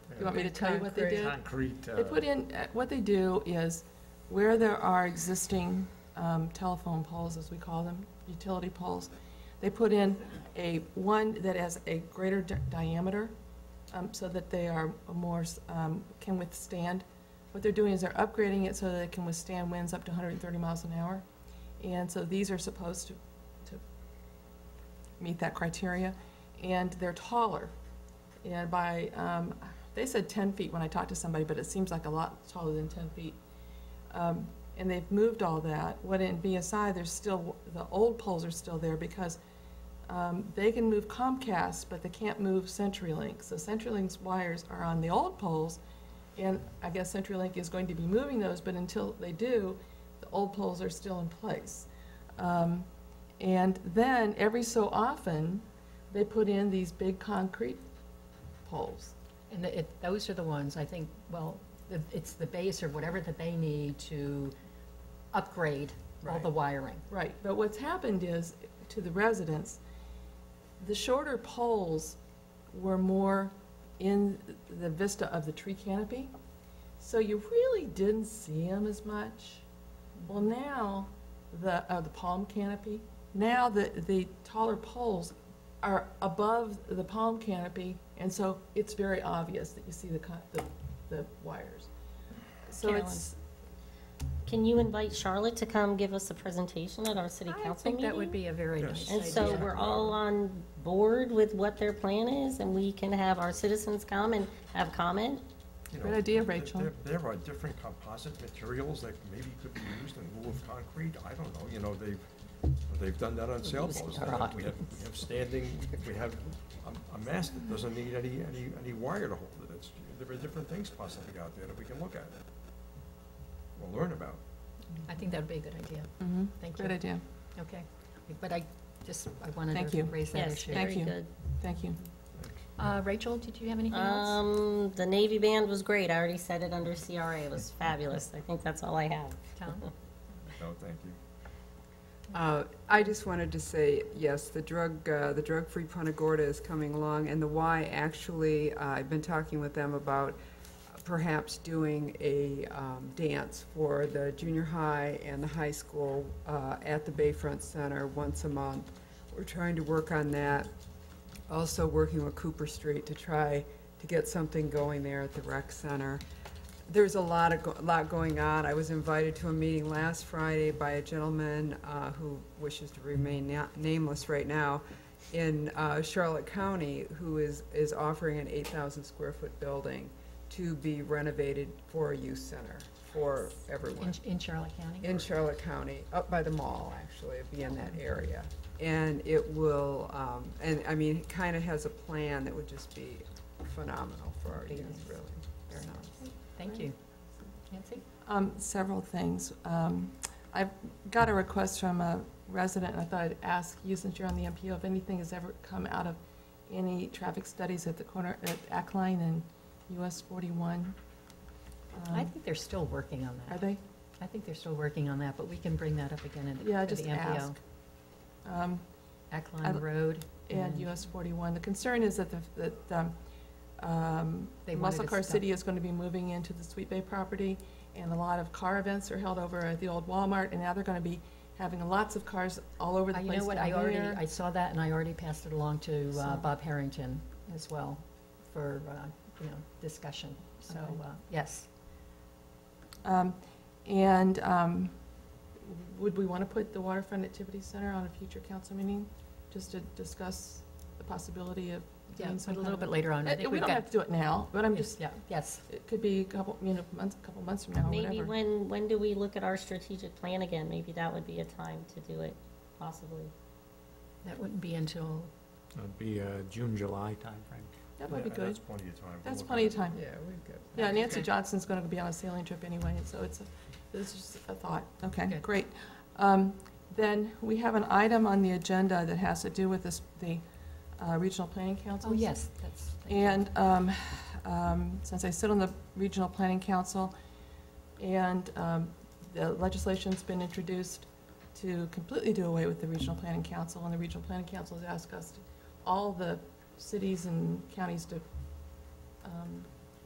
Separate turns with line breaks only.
You want me to tell you what they did?
Concrete.
They put in, uh, what they do is, where there are existing um, telephone poles, as we call them, utility poles, they put in a, one that has a greater di- diameter, um, so that they are more, um, can withstand. What they're doing is they're upgrading it so that it can withstand winds up to 130 miles an hour. And so these are supposed to, to meet that criteria, and they're taller. And by, um, they said ten feet when I talked to somebody, but it seems like a lot taller than ten feet. Um, and they've moved all that. What in BSI, there's still, the old poles are still there because, um, they can move Comcast, but they can't move CenturyLink. So CenturyLink's wires are on the old poles, and I guess CenturyLink is going to be moving those, but until they do, the old poles are still in place. Um, and then, every so often, they put in these big concrete poles.
And the- it, those are the ones, I think, well, the- it's the base or whatever that they need to upgrade all the wiring.
Right, but what's happened is, to the residents, the shorter poles were more in the vista of the tree canopy, so you really didn't see them as much. Well, now, the, uh, the palm canopy, now the, the taller poles are above the palm canopy, and so it's very obvious that you see the, co- the, the wires. So it's,
Can you invite Charlotte to come give us a presentation at our city
I
council
think that would
meeting?
be a very
Yes.
nice
And so
idea.
we're all on board with what their plan is, and we can have our citizens come and have comment?
Great idea, Rachel.
There, there are different composite materials that maybe could be used in lieu of concrete, I don't know, you know, they've, they've done that on sailboats.
All right.
We have, we have standing, we have a, a mast that doesn't need any, any, any wire to hold it, it's, there are different things possibly out there that we can look at. We'll learn about.
I think that'd be a good idea.
Mm-hmm.
Mhm.
Thank
great
you.
idea,
Okay. But I just, I wanted
Thank
to
you.
raise that
Yes,
issue.
Thank
very
you.
good.
thank you.
Uh, Rachel, did you have anything else?
Um, the Navy band was great. I already said it under CRA. It was fabulous. I think that's all I have.
Tom?
No, thank you.
Uh, I just wanted to say, yes, the drug, uh, the drug-free Punta Gorda is coming along, and the Y actually, uh, I've been talking with them about perhaps doing a um, dance for the junior high and the high school uh, at the Bayfront Center once a month. We're trying to work on that, also working with Cooper Street to try to get something going there at the rec center there's a lot of, go- lot going on. I was invited to a meeting last Friday by a gentleman uh, who wishes to remain na- nameless right now in uh, Charlotte County, who is, is offering an 8,000 square foot building to be renovated for a youth center for everyone
In- In Charlotte County?
in Charlotte County, up by the mall, actually, it'd be in that area. And it will, um, and I mean, it kind of has a plan that would just be phenomenal for our youth, really. Very nice.
Thank you. Nancy?
Um, Several things. Um, I've got a request from a resident, and I thought I'd ask you, since you're on the MPO, if anything has ever come out of any traffic studies at the corner, at Ackline and US 41? Um,
I think they're still working on
Are
that.
they?
I think they're still working on that, but we can bring that up again in the
Yeah,
at the
just
MPO.
ask. Um, I-
Ackline Road.
And US 41. The concern is that, the- that um, um,
They wanted
Muscle
to
Car
stop.
City is going to be moving into the Sweet Bay property, and a lot of car events are held over at the old Walmart, and now they're going to be having lots of cars all over the
Uh,
place
You know what, I
down
already,
there.
I saw that, and I already passed it along to uh,
So-
Bob Harrington as well for, uh, you know, discussion. So,
Okay.
uh, yes,
Um, And um, would we want to put the Waterfront Activity Center on a future council meeting, just to discuss the possibility of
yeah,
doing
but
some
a
kind
little
of-
bit later on. I
Uh,
think
We
we've
don't have
got.
to do it now, but I'm just,
Yeah, yes,
it could be a couple, you know, months, a couple months from
Oh,
now, or
Maybe
whatever.
when, when do we look at our strategic plan again? Maybe that would be a time to do it, possibly.
that wouldn't be until,
It'd be a June, July timeframe.
That would be
Yeah,
good.
That's plenty of time. We'll
That's
look at
plenty
it.
of time.
Yeah, we've got.
Yeah, Nancy Johnson's going to be on a sailing trip anyway, so it's, a this is just a thought. Okay,
Good.
great. Um, Then we have an item on the agenda that has to do with this, the uh, Regional Planning Council.
oh, yes, that's. thank you.
And um, um, since I sit on the Regional Planning Council, and um, the legislation's been introduced to completely do away with the Regional Planning Council, and the Regional Planning Council has asked us, to- all the cities and counties to um,